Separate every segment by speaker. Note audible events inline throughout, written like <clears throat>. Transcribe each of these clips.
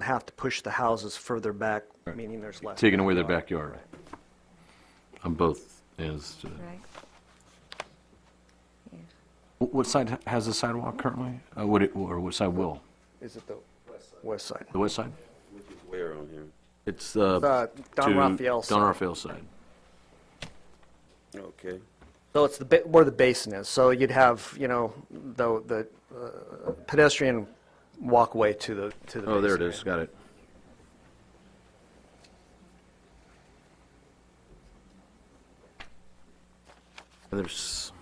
Speaker 1: have to push the houses further back, meaning there's less.
Speaker 2: taking away their backyard on both ends.
Speaker 3: Right.
Speaker 2: Wh- What side ha- has the sidewalk currently? Uh, Would it, or what side will?
Speaker 1: Is it the west side?
Speaker 2: The west side?
Speaker 4: Where on here?
Speaker 2: It's uh,
Speaker 1: Uh, Don
Speaker 2: to
Speaker 1: Raphael's
Speaker 2: Don
Speaker 1: side.
Speaker 2: Raphael's side.
Speaker 4: Okay.
Speaker 1: So it's the, ba- where the basin is, so you'd have, you know, the, the uh, pedestrian walkway to the, to the basin.
Speaker 2: Oh, there it is, got it. There's,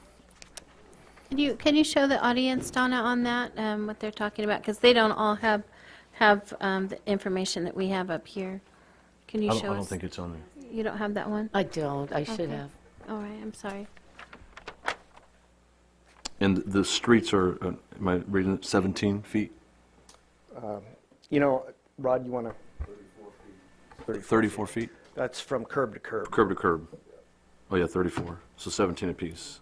Speaker 3: Can you, can you show the audience, Donna, on that, um, what they're talking about? Because they don't all have, have um, the information that we have up here. Can you
Speaker 2: I
Speaker 3: show
Speaker 2: don't,
Speaker 3: us?
Speaker 2: I don't think it's on there.
Speaker 3: You don't have that one?
Speaker 5: I don't, I should have.
Speaker 3: All right, I'm sorry.
Speaker 2: And the streets are, uh, am I reading it, 17 feet?
Speaker 1: You know, Rod, you want to,
Speaker 2: 34 feet?
Speaker 1: that's from curb to curb.
Speaker 2: Curb to curb. Oh, yeah, 34, so 17 apiece.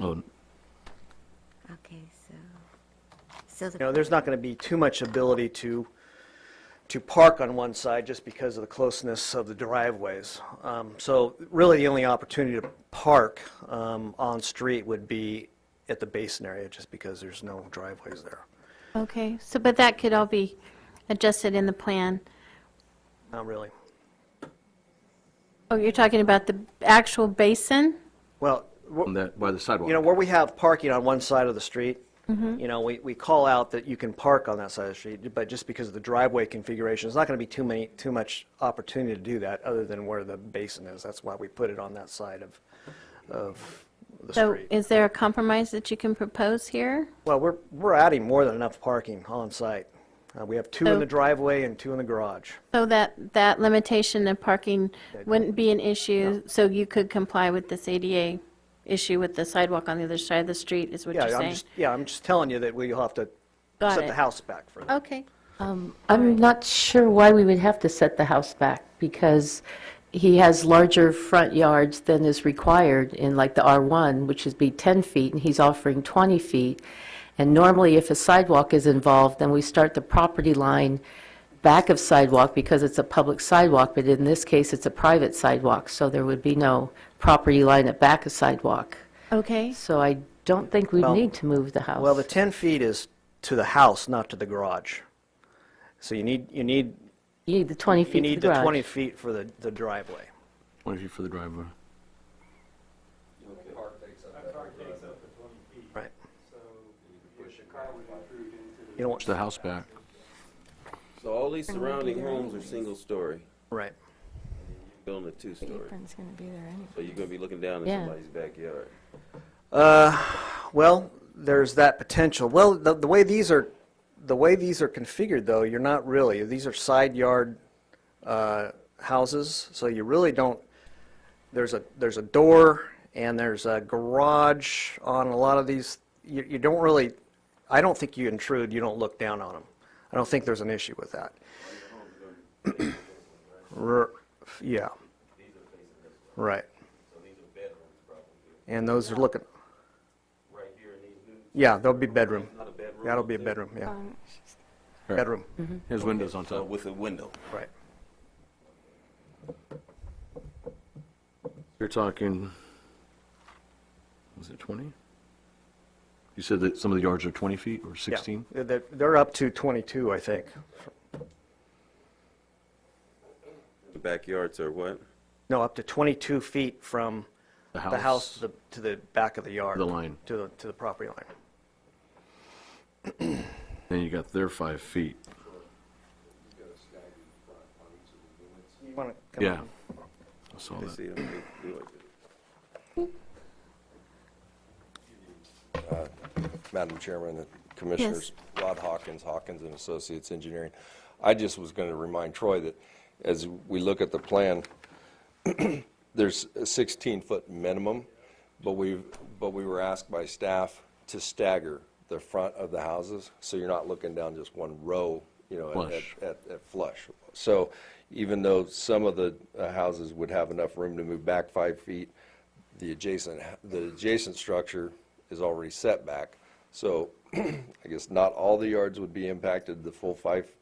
Speaker 2: Oh,
Speaker 5: Okay, so, so
Speaker 1: You know,
Speaker 5: the,
Speaker 1: there's not going to be too much ability to, to park on one side just because of the closeness of the driveways. Um, So really, the only opportunity to park um, on-street would be at the basin area, just because there's no driveways there.
Speaker 3: Okay, so, but that could all be adjusted in the plan.
Speaker 1: Not really.
Speaker 3: Oh, you're talking about the actual basin?
Speaker 1: Well, wh-
Speaker 2: on that, by the sidewalk.
Speaker 1: you know, where we have parking on one side of the street,
Speaker 3: Mm-hmm.
Speaker 1: you know, we, we call out that you can park on that side of the street, but just because of the driveway configuration, there's not going to be too many, too much opportunity to do that, other than where the basin is. That's why we put it on that side of, of the
Speaker 3: So
Speaker 1: street.
Speaker 3: is there a compromise that you can propose here?
Speaker 1: Well, we're, we're adding more than enough parking on site. Uh, We have two in
Speaker 3: So-
Speaker 1: the driveway and two in the garage.
Speaker 3: So that, that limitation of parking wouldn't be an issue, so you could comply with this ADA issue with the sidewalk on the other side of the street, is what you're
Speaker 1: Yeah, I'm
Speaker 3: saying?
Speaker 1: just, yeah, I'm just telling you that we'll have to
Speaker 3: Got
Speaker 1: set the
Speaker 3: it.
Speaker 1: house back for that.
Speaker 3: Okay,
Speaker 5: I'm not sure why we would have to set the house back, because he has larger front yards than is required in like the R1, which would be 10 feet, and he's offering 20 feet. And normally, if a sidewalk is involved, then we start the property line back of sidewalk, because it's a public sidewalk, but in this case, it's a private sidewalk, so there would be no property line at back of sidewalk.
Speaker 3: okay.
Speaker 5: So I don't think we
Speaker 1: Well-
Speaker 5: need to move the house.
Speaker 3: Oh.
Speaker 1: Well, the 10 feet is to the house, not to the garage. So you need, you need,
Speaker 5: You need the 20 feet
Speaker 1: you
Speaker 5: for
Speaker 1: need the
Speaker 5: garage.
Speaker 1: 20 feet for the, the driveway.
Speaker 2: 20 feet for the driveway.
Speaker 1: Right. You don't
Speaker 2: Push
Speaker 1: want,
Speaker 2: the house back.
Speaker 4: So all these surrounding homes are single-story,
Speaker 1: right.
Speaker 4: building a two-story.
Speaker 6: Apron's gonna be there anyway.
Speaker 4: So you're gonna be looking down at
Speaker 5: Yeah.
Speaker 4: somebody's backyard.
Speaker 1: Well, there's that potential. Well, the, the way these are, the way these are configured though, you're not really, these are side yard, uh, houses, so you really don't, there's a, there's a door and there's a garage on a lot of these. You, you don't really, I don't think you intrude, you don't look down on them. I don't think there's an issue with that. R- Yeah. Right. And those are looking, yeah, there'll be bedroom. That'll be a bedroom, yeah.
Speaker 6: Um, it's just-
Speaker 1: Bedroom,
Speaker 2: His windows on
Speaker 4: So
Speaker 2: top.
Speaker 4: with a window.
Speaker 1: right.
Speaker 2: You're talking, was it 20? You said that some of the yards are 20 feet or
Speaker 1: Yeah.
Speaker 2: 16?
Speaker 1: They're, they're up to 22, I think.
Speaker 4: The backyards are what?
Speaker 1: No, up to 22 feet from the
Speaker 2: The house.
Speaker 1: house to the- to the back of the yard.
Speaker 2: The line.
Speaker 1: To the, to the property line.
Speaker 2: Then you got their five feet.
Speaker 1: You wanna come
Speaker 2: Yeah.
Speaker 1: in?
Speaker 2: I saw
Speaker 4: They
Speaker 2: that.
Speaker 4: see them, they do it.
Speaker 7: Madam Chairman and Commissioners, Rod Hawkins, Hawkins and Associates Engineering. I just was going to remind Troy that as we look at the plan, <clears throat> there's a 16-foot minimum, but we, but we were asked by staff to stagger the front of the houses, so you're not looking down just one row, you know, at-
Speaker 2: Flush.
Speaker 7: at, at flush. So even though some of the uh, houses would have enough room to move back five feet, the adjacent, the adjacent structure is already set back. So <clears throat> I guess not all the yards would be impacted, the full five